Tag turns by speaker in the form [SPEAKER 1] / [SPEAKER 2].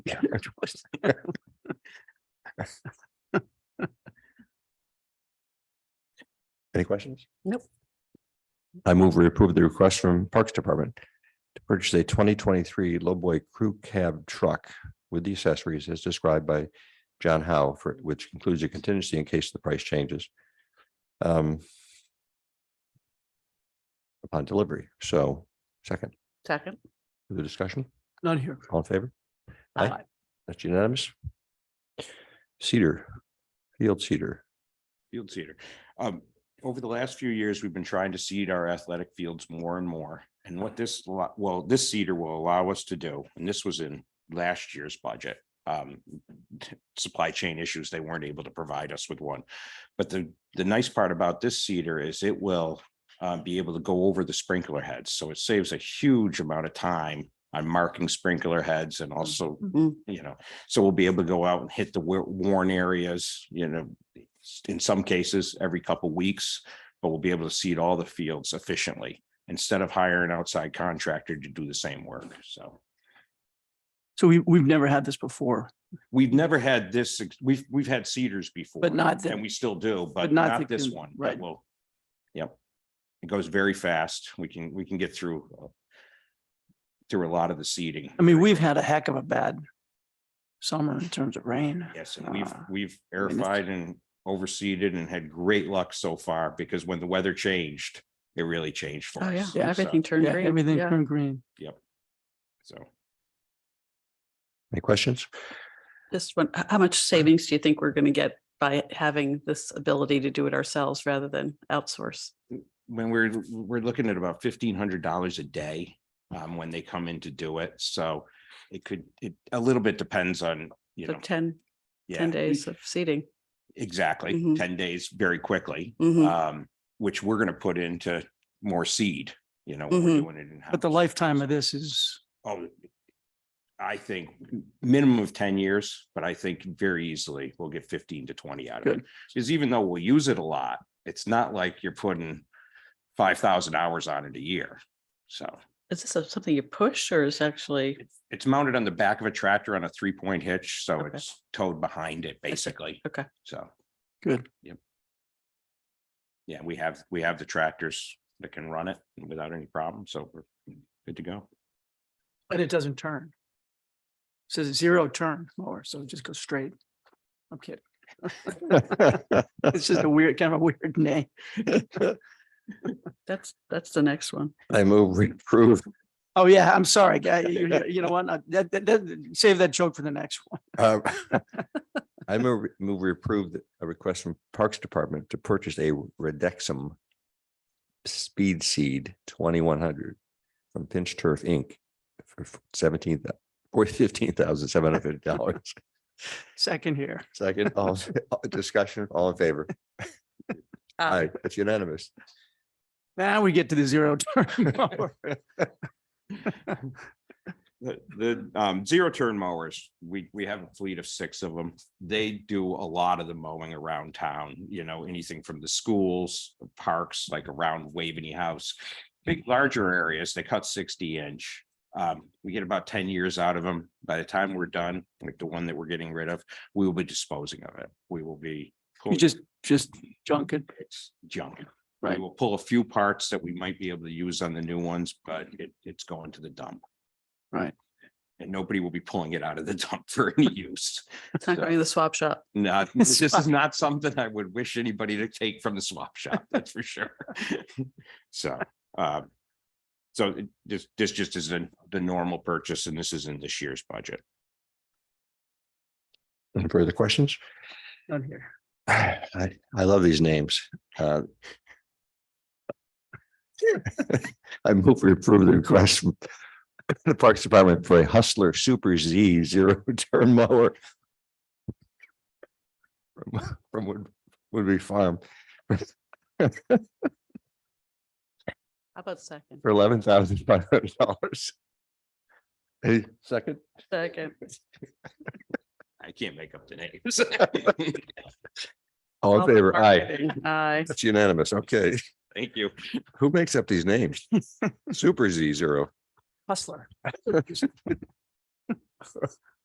[SPEAKER 1] Any questions?
[SPEAKER 2] Nope.
[SPEAKER 1] I move we approve the request from Parks Department to purchase a twenty twenty-three lowboy crew cab truck with the accessories as described by John Howe for, which includes a contingency in case the price changes. um, Upon delivery. So second,
[SPEAKER 2] Second.
[SPEAKER 1] for the discussion,
[SPEAKER 3] None here.
[SPEAKER 1] all in favor? Aye.
[SPEAKER 2] Aye.
[SPEAKER 1] That's unanimous. Cedar, field cedar.
[SPEAKER 4] field seeder. Um, over the last few years, we've been trying to seed our athletic fields more and more. And what this, lo- well, this seeder will allow us to do, and this was in last year's budget. Um, supply chain issues, they weren't able to provide us with one. But the, the nice part about this seeder is it will uh, be able to go over the sprinkler heads. So it saves a huge amount of time on marking sprinkler heads and also,
[SPEAKER 2] Mhm.
[SPEAKER 4] you know, so we'll be able to go out and hit the wor- worn areas, you know, in some cases, every couple weeks, but we'll be able to seed all the fields efficiently instead of hiring an outside contractor to do the same work. So
[SPEAKER 3] So we, we've never had this before,
[SPEAKER 4] we've never had this, ex- we've, we've had cedars before.
[SPEAKER 3] But not the-
[SPEAKER 4] And we still do, but
[SPEAKER 3] but not
[SPEAKER 4] not
[SPEAKER 3] the
[SPEAKER 4] this
[SPEAKER 3] con-
[SPEAKER 4] one.
[SPEAKER 3] right.
[SPEAKER 4] Well, yep. It goes very fast. We can, we can get through uh, through a lot of the seeding.
[SPEAKER 3] I mean, we've had a heck of a bad summer in terms of rain.
[SPEAKER 4] Yes, and we've,
[SPEAKER 3] Ah,
[SPEAKER 4] we've
[SPEAKER 3] mean, this-
[SPEAKER 4] airified and overseeded and had great luck so far because when the weather changed, it really changed for
[SPEAKER 2] Oh, yeah.
[SPEAKER 4] us. So,
[SPEAKER 2] Everything turned
[SPEAKER 3] uh, Yeah,
[SPEAKER 2] green.
[SPEAKER 3] everything
[SPEAKER 2] Yeah.
[SPEAKER 3] turned green.
[SPEAKER 4] So.
[SPEAKER 1] Any questions?
[SPEAKER 2] Just one, h- how much savings do you think we're going to get by having this ability to do it ourselves rather than outsource?
[SPEAKER 4] when we're, we're looking at about fifteen hundred dollars a day, um, when they come in to do it, so it could, it, a little bit depends on, you
[SPEAKER 2] So
[SPEAKER 4] know.
[SPEAKER 2] 10, 10
[SPEAKER 4] yeah,
[SPEAKER 2] days of seating.
[SPEAKER 4] Exactly,
[SPEAKER 2] Mhm.
[SPEAKER 4] ten days very quickly,
[SPEAKER 3] Mm-hmm.
[SPEAKER 2] Mhm.
[SPEAKER 4] um, which we're gonna put into more seed, you know, when we're
[SPEAKER 2] Mhm.
[SPEAKER 4] doing it in.
[SPEAKER 3] But the lifetime of this is,
[SPEAKER 4] Oh, I think minimum of ten years, but I think very easily we'll get fifteen to twenty out of it.
[SPEAKER 3] Good.
[SPEAKER 4] Because even though we'll use it a lot, it's not like you're putting five thousand hours on it a year, so.
[SPEAKER 2] Is this a- something you push or is actually,
[SPEAKER 4] It's- It's mounted on the back of a tractor on a three point hitch, so
[SPEAKER 2] Okay.
[SPEAKER 4] it's towed behind it basically.
[SPEAKER 2] Okay.
[SPEAKER 4] So,
[SPEAKER 3] good.
[SPEAKER 4] yeah, we have, we have the tractors that can run it without any problem, so we're good to go.
[SPEAKER 3] But it doesn't turn. Says zero turn mower, so it just goes straight. I'm kidding. It's just a weird, kind of a weird name.
[SPEAKER 2] that's, that's the next one.
[SPEAKER 1] I move we approve
[SPEAKER 3] Oh, yeah, I'm sorry, guy. You, you- you know what? Uh, That, that, that, save that joke for the next one.
[SPEAKER 1] Uh, I move, move we approve the- a request from Parks Department to purchase a Redexum Speed Seed twenty-one hundred from Pinch Turf Inc. for seventeen, or fifteen thousand seven hundred fifty dollars.
[SPEAKER 3] Second here.
[SPEAKER 1] Second, all, discussion, all in favor? Aye, that's unanimous.
[SPEAKER 3] Now we get to the zero turn mower.
[SPEAKER 4] The, the, um, zero turn mowers, we, we have a fleet of six of them. They do a lot of the mowing around town, you know, anything from the schools, parks, like around Waveney House. Big, larger areas, they cut sixty inch. Um, we get about ten years out of them. By the time we're done, like the one that we're getting rid of, we will be disposing of it. We will be.
[SPEAKER 3] You just, just junk it.
[SPEAKER 4] It's junk. We
[SPEAKER 3] Right.
[SPEAKER 4] will pull a few parts that we might be able to use on the new ones, but it, it's going to the dump.
[SPEAKER 3] Right.
[SPEAKER 4] And nobody will be pulling it out of the dump for any use.
[SPEAKER 2] It's not going to the swap shop.
[SPEAKER 4] Not, this is not something I would wish anybody to take from the swap shop, that's for sure. So, um, so it- this, this just isn't the normal purchase and this is in this year's budget.
[SPEAKER 1] Any further questions?
[SPEAKER 3] None here.
[SPEAKER 1] I, I love these names. uh. I move we approve the request from the Parks Department for a Hustler Super Z zero turn mower. From- From Wood, Woodbury Farm
[SPEAKER 2] How about second?
[SPEAKER 1] for eleven thousand five hundred dollars. Hey, second?
[SPEAKER 2] Second.
[SPEAKER 4] I can't make up the names.
[SPEAKER 1] All in favor? Aye.
[SPEAKER 2] Aye.
[SPEAKER 1] That's unanimous. Okay.
[SPEAKER 4] Thank you.
[SPEAKER 1] Who makes up these names? Super Z zero.
[SPEAKER 3] Hustler.